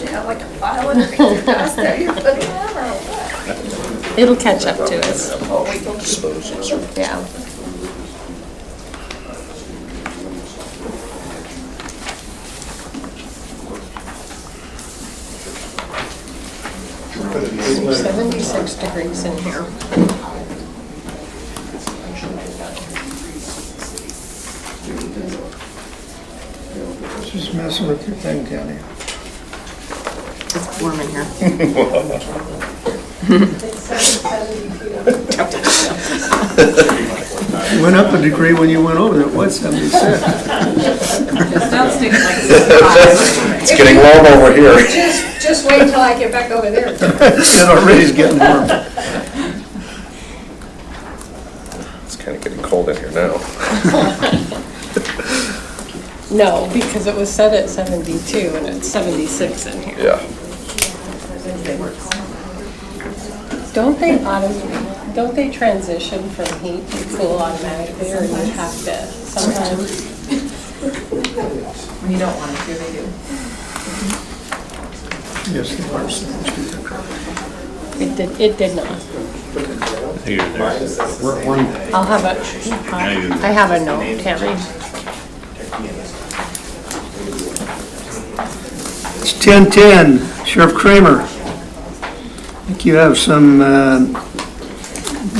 you know, like a pile of cream dust that you're putting on or what? It'll catch up to us, Oh, we can keep yeah. Seventy-six degrees in here. It's Just messing with your thing, Kenny. It's warm in here. It Went up a degree when you went over there, what, 76? It's getting warm over here. Just, just wait till I get back over there. It already is getting warm. It's kind of getting cold in here now. No, because it was set at seventy-two and it's seventy-six in here. Yeah. Don't they autom, don't they transition from heat to cool automatically or you have to sometimes? When you don't want it to, they do. Yes, the worst. It did, it did not. I'll have a, I have a note, Tammy. It's 10:10, Sheriff Kramer. I think you have some uh,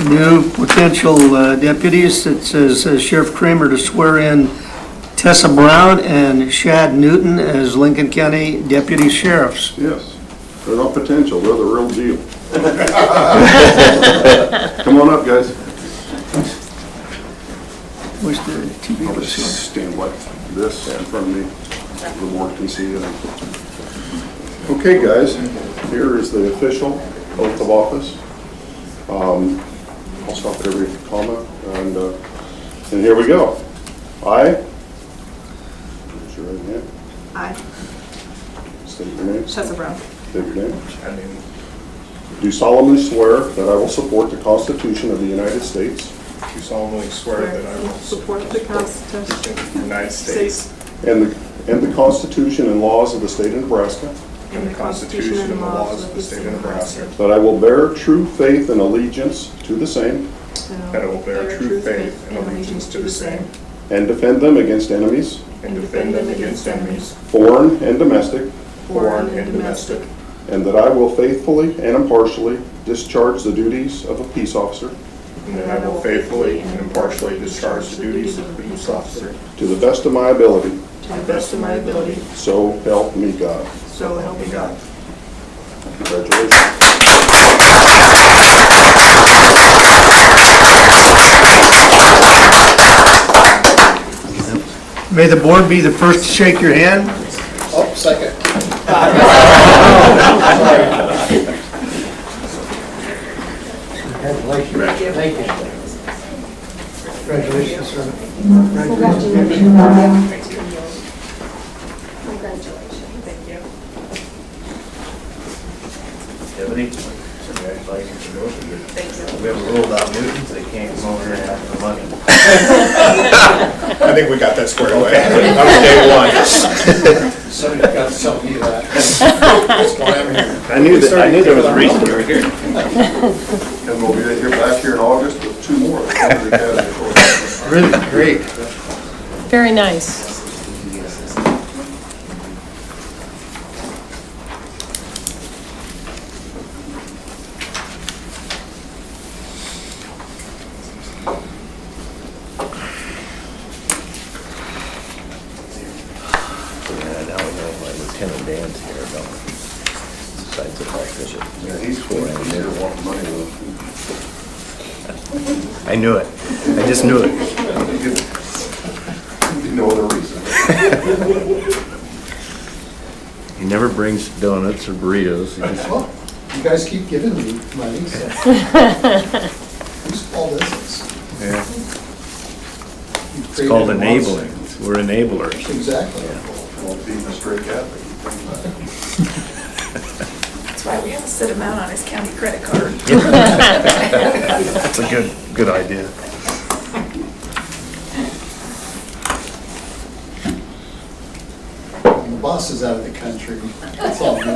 new potential uh, deputies. It says uh, Sheriff Kramer to swear in Tessa Brown and Shad Newton as Lincoln County Deputy Sheriffs. Yes, they're not potential, they're the real deal. Come on up, guys. Where's the TV I'll was here? just stand like this in front of me, so the board can see it. Okay, guys, here is the official oath of office. Um, I'll stop at every comma, and, uh, and here we go. I, raise your right hand, I, state your name, state Tessa Brown, your name. Do solemnly swear that I will support the Constitution of the United States Do solemnly swear that I will support support the Constitution the United States and the, and the Constitution and laws of the state of Nebraska, and the Constitution and the laws of the state of Nebraska, that I will bear true faith and allegiance to the same that I will bear true faith and allegiance to the same, and defend them against enemies, and defend them against enemies, foreign and domestic, foreign and domestic, and that I will faithfully and impartially discharge the duties of a peace officer and that I will faithfully and impartially discharge the duties of police officer to the best of my ability, to the best of my ability, so help me God. so help me God. Congratulations. May the board be the first to shake your hand. Tiffany. We have a rule about Newtons, they can't come over here and have the money. I think we got that squared away. That was day one. Somebody's got to tell me that. I knew that, I knew there was a reason. you were here. And we'll be here back here in August with two more. Really great. Very nice. Yeah, now we know why Lieutenant Dan's here, don't we? Besides the fact that she- He's going to be here wanting money though. I knew it, I just knew it. No other reason. He never brings donuts or burritos, he just Well, you guys keep giving me money, so. Who's all this is? Yeah. You It's called created enabling, monsters. we're enablers. Exactly. Well, being a straight Catholic. That's why we have to sit him out on his county credit card. That's a good, good idea. And The boss is out of the country. It's all good.